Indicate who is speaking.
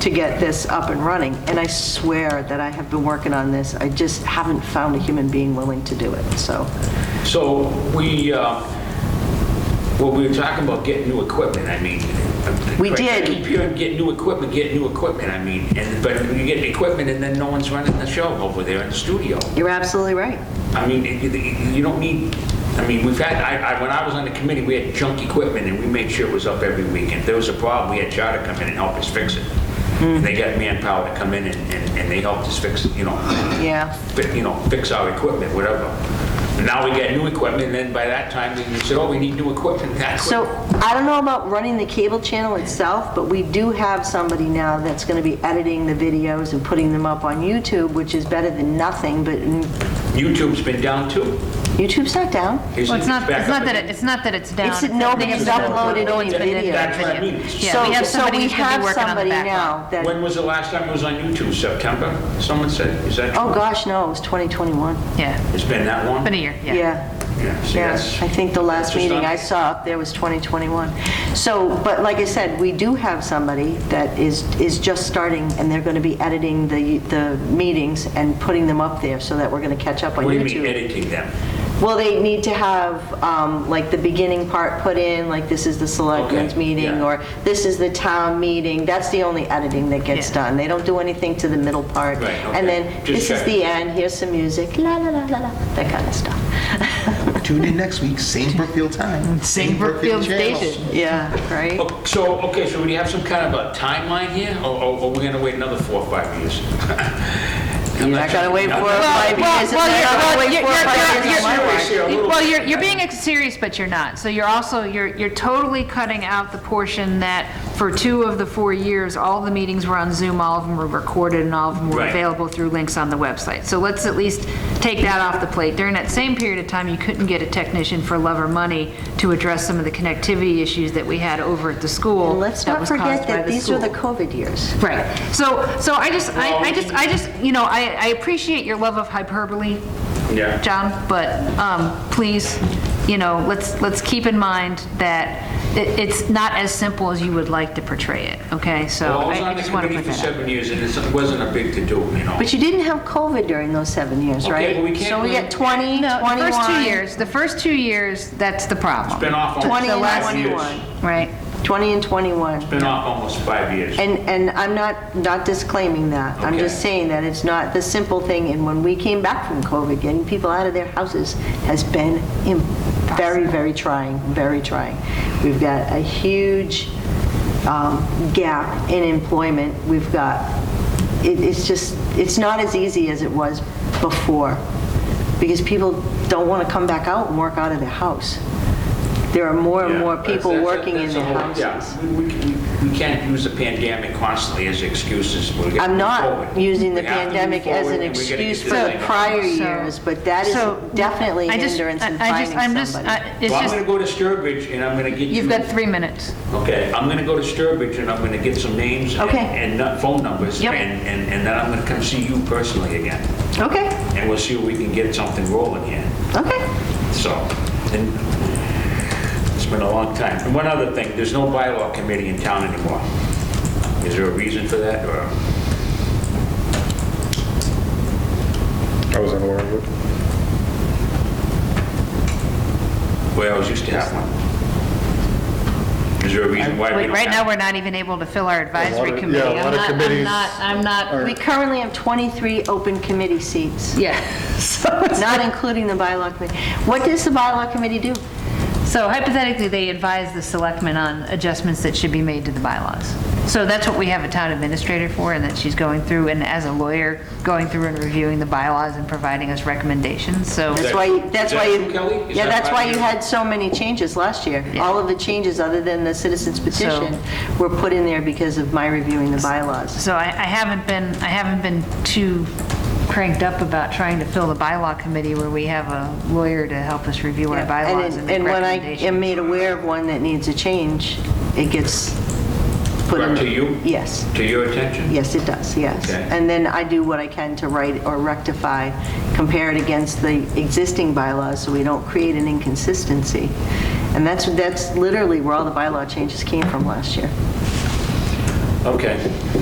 Speaker 1: to get this up and running, and I swear that I have been working on this, I just haven't found a human being willing to do it, so.
Speaker 2: So we, uh, well, we were talking about getting new equipment, I mean.
Speaker 1: We
Speaker 2: Right, I
Speaker 1: did.
Speaker 2: Keep hearing, get new equipment, get new equipment, I mean, and, but you get the equipment and then no one's running the show over there in the studio.
Speaker 1: You're absolutely right.
Speaker 2: I mean, it- it- you don't need, I mean, we've had, I, I, when I was on the committee, we had junk equipment and we made sure it was up every week. If there was a problem, we had Charter come in and help us fix it.
Speaker 1: Hmm.
Speaker 2: And they got manpower to come in and, and and they helped us fix, it, you know,
Speaker 1: Yeah.
Speaker 2: fi- you know, fix our equipment, whatever. Now we got new equipment, and then by that time, we said, oh, we need new equipment, that
Speaker 1: So
Speaker 2: quick.
Speaker 1: I don't know about running the cable channel itself, but we do have somebody now that's going to be editing the videos and putting them up on YouTube, which is better than nothing, but
Speaker 2: YouTube's been down too.
Speaker 1: YouTube's not down.
Speaker 2: Isn't
Speaker 3: Well, it's not,
Speaker 2: back up
Speaker 3: it's not that,
Speaker 2: again?
Speaker 3: it- it's not that it's down.
Speaker 1: It's that
Speaker 3: something
Speaker 1: nobody's
Speaker 3: that's been
Speaker 1: uploaded
Speaker 3: uploaded,
Speaker 1: any
Speaker 3: it's been
Speaker 1: video.
Speaker 2: That's what I
Speaker 3: edited.
Speaker 2: mean.
Speaker 3: Yeah, we have
Speaker 1: So-
Speaker 3: somebody who's gonna
Speaker 1: So
Speaker 3: be working on the
Speaker 1: we have somebody
Speaker 3: backlog.
Speaker 1: now that,
Speaker 2: When was the last time it was on YouTube? September? Someone said, is that?
Speaker 1: oh gosh, no, it was 2021.
Speaker 3: Yeah,
Speaker 2: It's been that long?
Speaker 3: been a year, yeah.
Speaker 1: Yeah.
Speaker 2: Yeah, see,
Speaker 1: Yeah,
Speaker 2: that's-
Speaker 1: I think the
Speaker 2: that's
Speaker 1: last
Speaker 2: just
Speaker 1: meeting
Speaker 2: not-
Speaker 1: I saw up there was 2021. So, but like I said, we do have somebody that is, is just starting, and they're going to be editing the, the meetings and putting them up there, so that we're going to catch up on
Speaker 2: What do you
Speaker 1: YouTube.
Speaker 2: mean editing them?
Speaker 1: Well, they need to have, um, like, the beginning part put in, like, this is the selectmen's
Speaker 2: Okay,
Speaker 1: meeting,
Speaker 2: yeah.
Speaker 1: or this is the town meeting. That's the only editing that gets
Speaker 3: Yeah.
Speaker 1: done. They don't do anything to the middle part.
Speaker 2: Right, okay.
Speaker 1: And then,
Speaker 2: Just
Speaker 1: this is
Speaker 2: checking.
Speaker 1: the end, here's some music, la, la, la, la, la, that kind of stuff.
Speaker 4: Tune in next week, same Brookfield time.
Speaker 3: Same Brookfield
Speaker 4: channel.
Speaker 3: Station.
Speaker 1: Yeah, right?
Speaker 2: Oh, So, okay, so do you have some kind of a timeline here, or or- or we're going to wait another four or five years? I'm
Speaker 1: You're not gonna
Speaker 2: sure.
Speaker 1: wait
Speaker 2: I'm
Speaker 1: for
Speaker 2: not-
Speaker 1: it,
Speaker 3: Well,
Speaker 1: why?
Speaker 3: well,
Speaker 1: Because
Speaker 3: well,
Speaker 1: it's
Speaker 3: you're-
Speaker 1: not gonna
Speaker 3: well,
Speaker 1: wait
Speaker 3: you're-
Speaker 1: four or five
Speaker 3: you're-
Speaker 1: years on
Speaker 3: you're-
Speaker 1: my
Speaker 3: you're-
Speaker 1: watch.
Speaker 2: You're a little-
Speaker 3: Well, you're, you're being ex- serious, but you're not. So you're also, you're, you're totally cutting out the portion that for two of the four years, all the meetings were on Zoom, all of them were recorded, and all of them were
Speaker 2: Right.
Speaker 3: available through links on the website. So let's at least take that off the plate. During that same period of time, you couldn't get a technician for love or money to address some of the connectivity issues that we had over at the school.
Speaker 1: And let's
Speaker 3: that
Speaker 1: not
Speaker 3: was caused
Speaker 1: forget
Speaker 3: by
Speaker 1: that
Speaker 3: the
Speaker 1: these are
Speaker 3: school.
Speaker 1: the COVID years.
Speaker 3: Right. So, so I just, I,
Speaker 2: Well-
Speaker 3: I just, I just, you know, I, I appreciate your love of hyperbole.
Speaker 2: Yeah.
Speaker 3: John, but, um, please, you know, let's, let's keep in mind that it, it's not as simple as you would like to portray it, okay? So
Speaker 2: Well, I was
Speaker 3: I I
Speaker 2: on the
Speaker 3: just want to
Speaker 2: committee
Speaker 3: put
Speaker 2: for
Speaker 3: that out.
Speaker 2: seven years, and it wasn't a big to-do, you know?
Speaker 1: But you didn't have COVID during those seven years,
Speaker 2: Okay,
Speaker 1: right?
Speaker 2: but we can't
Speaker 1: So we
Speaker 2: really-
Speaker 1: got 20, 21.
Speaker 3: No, the first two years, the first two years, that's the
Speaker 2: Been
Speaker 3: problem,
Speaker 2: off almost
Speaker 1: 20 and
Speaker 2: five years.
Speaker 1: 21.
Speaker 3: right?
Speaker 1: 20 and 21.
Speaker 2: Been off almost five years.
Speaker 1: And, and I'm not, not disclaiming that. I'm just
Speaker 2: Okay.
Speaker 1: saying that it's not the simple thing, and when we came back from COVID, getting people out of their houses has been im- very, very trying, very trying. We've got a huge um, gap in employment. We've got, it- it's just, it's not as easy as it was before, because people don't want to come back out and work out of their house. There are more and
Speaker 2: Yeah,
Speaker 1: more
Speaker 2: that's-
Speaker 1: people
Speaker 2: that's a-
Speaker 1: working in
Speaker 2: that's a
Speaker 1: their
Speaker 2: whole-
Speaker 1: houses.
Speaker 2: yeah. We- We we- we can't use the pandemic constantly as excuses. We're gonna
Speaker 1: I'm
Speaker 2: move
Speaker 1: not
Speaker 2: forward.
Speaker 1: using the
Speaker 2: We have to move
Speaker 1: pandemic as
Speaker 2: forward,
Speaker 1: an
Speaker 2: and we're gonna
Speaker 1: excuse
Speaker 2: get
Speaker 1: for
Speaker 2: this
Speaker 1: the
Speaker 2: thing up.
Speaker 1: prior
Speaker 3: So-
Speaker 1: years, but that is
Speaker 3: so,
Speaker 1: definitely
Speaker 3: I
Speaker 1: a
Speaker 3: just-
Speaker 1: hindrance in
Speaker 3: I- I just- I'm
Speaker 1: finding
Speaker 3: just-
Speaker 1: somebody.
Speaker 3: I- It's
Speaker 2: Well, I'm
Speaker 3: just,
Speaker 2: going to go to Sturbridge, and I'm going to get you...
Speaker 3: you've got three minutes.
Speaker 2: Okay, I'm gonna go to Sturbridge and I'm gonna get some names and-
Speaker 1: Okay.
Speaker 2: and nu- phone numbers.
Speaker 3: Yep.
Speaker 2: And, and and then I'm gonna come see you personally again.
Speaker 1: Okay,
Speaker 2: And we'll see if we can get something rolling here.
Speaker 1: okay.
Speaker 2: So, and it's been a long time. And one other thing, there's no bylaw committee in town anymore. Is there a reason for that or?
Speaker 5: I was unaware of it.
Speaker 2: Well, I was used to have one. Is there a reason why we
Speaker 3: Wait,
Speaker 2: don't
Speaker 3: right now,
Speaker 2: have?
Speaker 3: we're not even able to fill our advisory
Speaker 5: of-
Speaker 3: committee.
Speaker 5: yeah,
Speaker 3: I'm
Speaker 5: a lot of
Speaker 3: not-
Speaker 5: committees
Speaker 3: I'm not, I'm not,
Speaker 1: We currently have 23 open committee seats,
Speaker 3: yeah. So it's-
Speaker 1: not including the bylaw committee. What does the bylaw committee do?
Speaker 3: So hypothetically, they advise the selectmen on adjustments that should be made to the bylaws. So that's what we have a town administrator for, and that she's going through, and as a lawyer, going through and reviewing the bylaws and providing us recommendations, so.
Speaker 1: That's
Speaker 2: that-
Speaker 1: why,
Speaker 2: is
Speaker 1: that's
Speaker 2: that
Speaker 1: why,
Speaker 2: true, Kelly?
Speaker 1: you
Speaker 2: Is
Speaker 1: yeah,
Speaker 2: that
Speaker 1: that's
Speaker 2: part
Speaker 1: why
Speaker 2: of
Speaker 1: you
Speaker 2: your-
Speaker 1: had so many changes last year. All of the changes, other than the citizens petition, were put in there because of my reviewing the bylaws.
Speaker 3: So I, I haven't been, I haven't been too cranked up about trying to fill the bylaw committee where we have a lawyer to help us review our
Speaker 1: Yeah, and
Speaker 3: bylaws
Speaker 1: it-
Speaker 3: and make
Speaker 1: And when I am
Speaker 3: recommendations.
Speaker 1: made aware of one that needs a change, it gets put in.
Speaker 2: Brought to you?
Speaker 1: Yes,
Speaker 2: To your attention?
Speaker 1: yes, it does, yes.
Speaker 2: Okay.
Speaker 1: And then I do what I can to write or rectify, compare it against the existing bylaws, so we don't create an inconsistency. And that's, that's literally where all the bylaw changes came from last year.
Speaker 2: Okay.